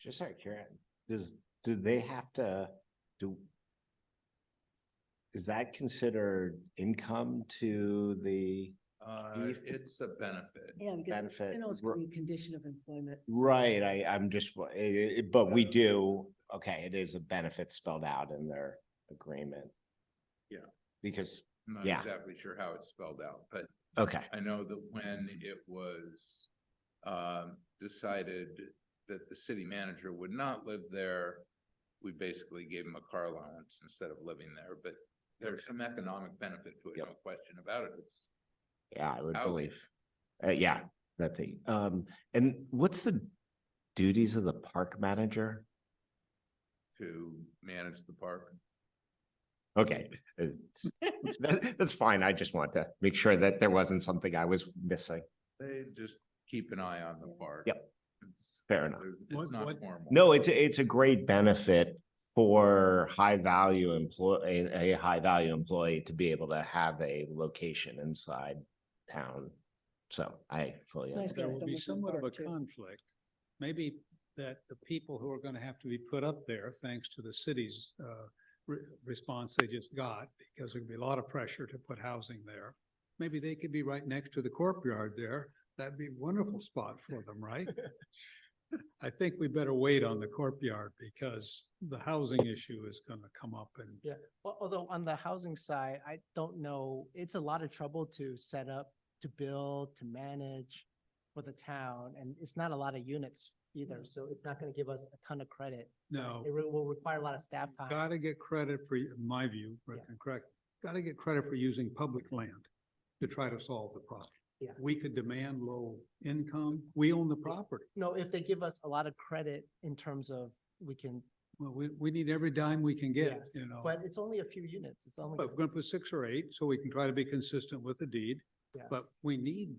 Just out of curiosity, does, do they have to do? Is that considered income to the Uh, If- it's a benefit. Yeah, because benefit? it also can be a condition of employment. Right, I, I'm just, wa- eh, eh, but we do, okay, it is a benefit spelled out in their agreement. Yeah. Because, I'm not Yeah. exactly sure how it's spelled out, but okay, I know that when it was um, decided that the city manager would not live there, we basically gave him a car allowance instead of living there, but there's some economic benefit to it, no question about it. It's yeah, I would Housing. believe. Uh, yeah, that thing. Um, and what's the duties of the park manager? to manage the park. Okay, it's- that- that's fine. I just want to make sure that there wasn't something I was missing. They just keep an eye on the park. Yep. It's- Fair enough. It's not formal. No, it's, a- it's a great benefit for high value employee, a high value employee to be able to have a location inside town. So I fully Nice. understand. There will be Someone somewhat of a embarked too. conflict. Maybe that the people who are going to have to be put up there, thanks to the city's uh, re- response they just got, because there'd be a lot of pressure to put housing there. Maybe they could be right next to the courtyard there. That'd be a wonderful spot for them, right? I think we better wait on the courtyard because the housing issue is going to come up and Al- Although on the housing side, I don't know, it's a lot of trouble to set up, to build, to manage for the town, and it's not a lot of units either, Mm. so it's not gonna give us a ton of credit. no. It re- will require a lot of staff time. Gotta get credit for, in my view, Rick, Yeah. and correct, gotta get credit for using public land to try to solve the problem. Yeah. We could demand low income, we own the property, No, if they give us a lot of credit in terms of we can, well, we, we need every dime we can get, Yeah, you know. but it's only a few units, it's only But we're gonna put six or eight, so we can try to be consistent with the deed, Yeah. but we need,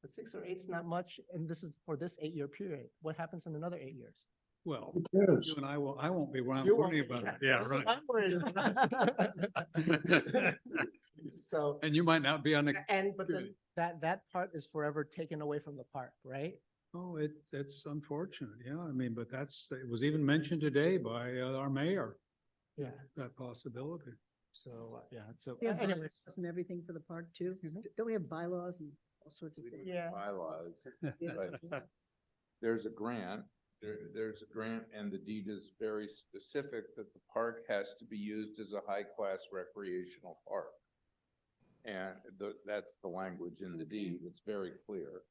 but six or eight's not much, and this is for this eight-year period. What happens in another eight years? well, you and I will, I won't be around You're worrying worried. about it, yeah, That's what right. I'm worried about. So. And you might not be on the, And, but then Period. that, that part is forever taken away from the park, right? oh, it, it's unfortunate, yeah, I mean, but that's, it was even mentioned today by uh, our mayor, Yeah. that possibility. So, uh, yeah, so Yeah, but- anyways, And everything for the park too? Excuse me? Don't we have bylaws and all sorts of We things? don't have Bylaws, Yeah. but there's a grant, there, there's a grant and the deed is very specific that the park has to be used as a high-class recreational park. And the, that's the language in the deed, it's very clear.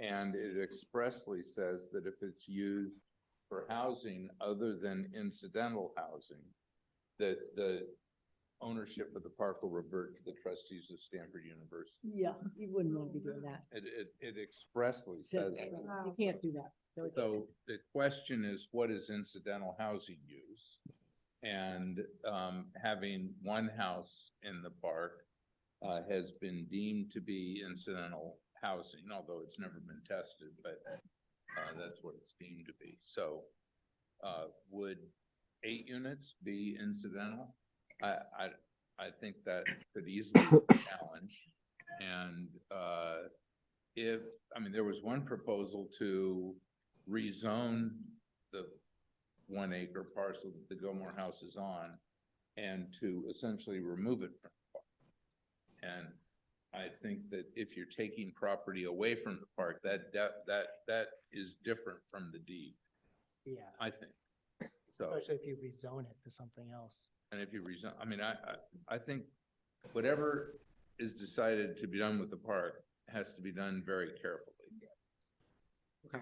And it expressly says that if it's used for housing other than incidental housing, that the ownership of the park will revert to the trustees of Stanford University. Yeah, you wouldn't want to be doing that. It, it, it expressly So, says. that. You can't do that. No, it- So the question is, what is incidental housing use? And, um, having one house in the park, uh, has been deemed to be incidental housing, although it's never been tested, but, uh, that's what it's deemed to be. So, uh, would eight units be incidental? I, I, I think that could easily be challenged. And, uh, if, I mean, there was one proposal to rezone the one acre parcel that the Gilmore House is on and to essentially remove it from the park. And I think that if you're taking property away from the park, that, that, that, that is different from the deed, yeah, I think. So, especially if you rezone it to something else. and if you rezon, I mean, I, I, I think whatever is decided to be done with the park has to be done very carefully.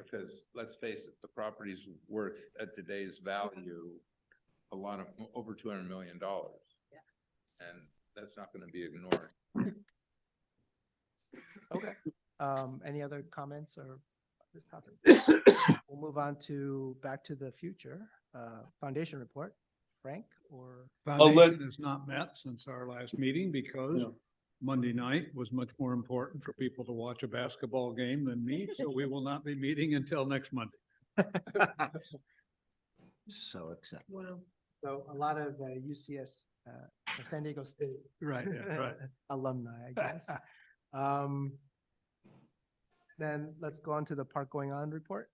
Because let's face it, the property's worth at today's value, a lot of, over two hundred million dollars. Yeah. And that's not gonna be ignored. Okay. Um, any other comments or this topic? We'll move on to, back to the future, uh, foundation report. Frank or? Foundation has not met since our last meeting because Monday night was much more important for people to watch a basketball game than me, so we will not be meeting until next Monday. So excited. Wow. So a lot of uh, UCS, uh, San Diego State Right, alumni, I guess. Um, then let's go on to the park going on report.